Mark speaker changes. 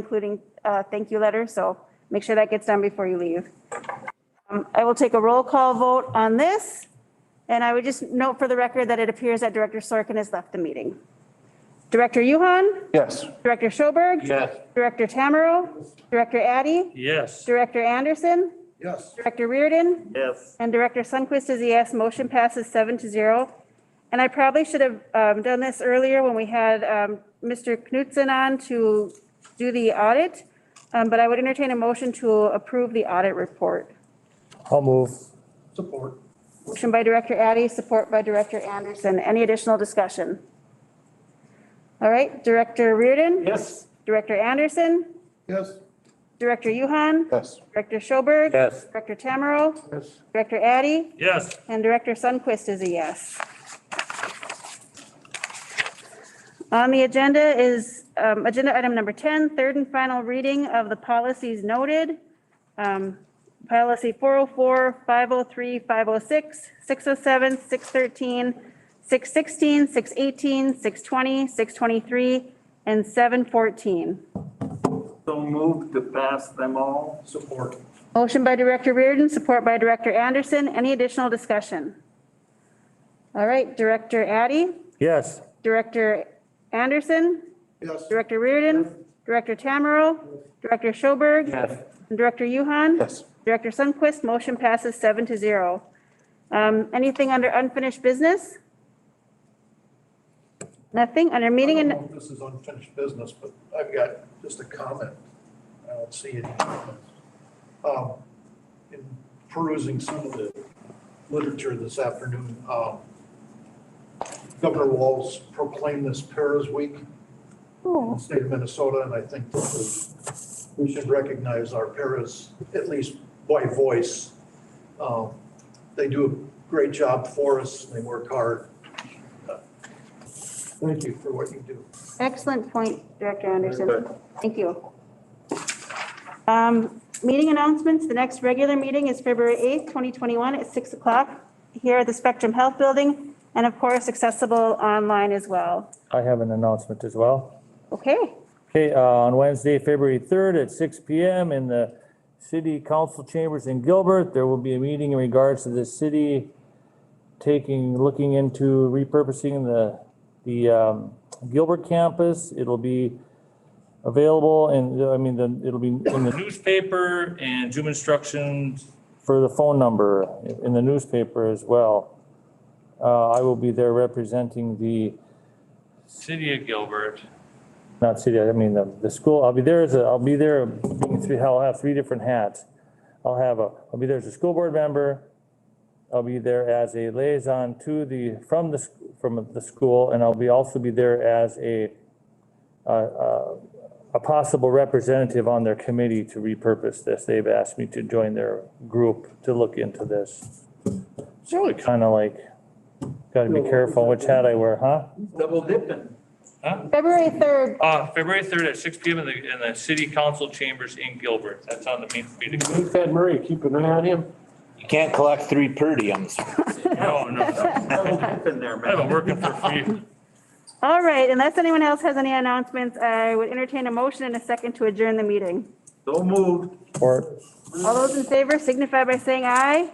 Speaker 1: including uh, thank you letter, so make sure that gets done before you leave. Um, I will take a roll call vote on this, and I would just note for the record that it appears that Director Sorkin has left the meeting. Director Yuhan,
Speaker 2: Yes.
Speaker 1: Director Schoberg.
Speaker 2: Yes.
Speaker 1: Director Tamero, Director Addy,
Speaker 3: Yes.
Speaker 1: Director Anderson,
Speaker 2: Yes.
Speaker 1: Director Reardon,
Speaker 3: Yes.
Speaker 1: and Director Sunquist is a yes. Motion passes seven to zero. And I probably should have um, done this earlier when we had um, Mr. Knutson on to do the audit, um, but I would entertain a motion to approve the audit report.
Speaker 3: I'll move.
Speaker 2: Support.
Speaker 1: Motion by Director Addy, support by Director Anderson. Any additional discussion? All right, Director Reardon,
Speaker 2: Yes.
Speaker 1: Director Anderson,
Speaker 2: Yes.
Speaker 1: Director Yuhan,
Speaker 2: Yes.
Speaker 1: Director Schoberg.
Speaker 3: Yes.
Speaker 1: Director Tamero,
Speaker 2: Yes.
Speaker 1: Director Addy,
Speaker 3: Yes.
Speaker 1: and Director Sunquist is a yes. On the agenda is um, Agenda Item Number 10, third and final reading of the policies noted. Um, Policy 404, 503, 506, 607, 613, 616, 618, 620, 623, and 714.
Speaker 4: So moved to pass them all. Support.
Speaker 1: Motion by Director Reardon, support by Director Anderson. Any additional discussion? All right, Director Addy,
Speaker 3: Yes.
Speaker 1: Director Anderson,
Speaker 2: Yes.
Speaker 1: Director Reardon, Director Tamero, Director Schoberg. and Director Yuhan.
Speaker 2: Yes.
Speaker 1: Director Sunquist, motion passes seven to zero. Um, Anything under unfinished business? Nothing under meeting
Speaker 5: I
Speaker 1: and.
Speaker 5: don't know if This is unfinished business, but I've got just a comment. I don't see any comments. Um, In perusing some of the literature this afternoon, um, Governor Walz proclaimed this Paras Week in the state of Minnesota, and I think this is, we should recognize our paras, at least by voice. Um, They do a great job for us, they work hard. Thank you for what you do.
Speaker 1: Excellent point, Director Anderson. Thank you. Um, Meeting announcements. The next regular meeting is February 8th, 2021 at 6 o'clock here at the Spectrum Health Building, and of course, accessible online as well.
Speaker 3: I have an announcement as well.
Speaker 1: Okay,
Speaker 3: Okay, uh, on Wednesday, February 3rd at six PM in the City Council Chambers in Gilbert, there will be a meeting in regards to the city taking, looking into repurposing the, the um, Gilbert campus. It'll be available and, I mean, then it'll be in the newspaper and Zoom instructions for the phone number in the newspaper as well. Uh, I will be there representing the
Speaker 6: City of Gilbert.
Speaker 3: not city, I mean, the, the school, I'll be there as a, I'll be there, being three, I'll have three different hats. I'll have a, I'll be there as a school board member. I'll be there as a liaison to the, from the, s- from the school, and I'll be, also be there as a, uh, uh, a possible representative on their committee to repurpose this. They've asked me to join their group to look into this. It's really kind of like, gotta be careful which hat I wear, huh?
Speaker 4: Double dipping.
Speaker 1: February 3rd,
Speaker 6: Uh, February third at six P M in the, in the city council chambers in Gilbert. That's on the main street.
Speaker 2: Make that Murray, keep an eye on him.
Speaker 7: You can't collect three per diems.
Speaker 6: No, no, no.
Speaker 4: Double dipping there,
Speaker 6: I've been
Speaker 4: man.
Speaker 6: working for free.
Speaker 1: all right, unless anyone else has any announcements, I would entertain a motion and a second to adjourn the meeting.
Speaker 4: So moved.
Speaker 3: Or
Speaker 1: All those in favor signify by saying aye.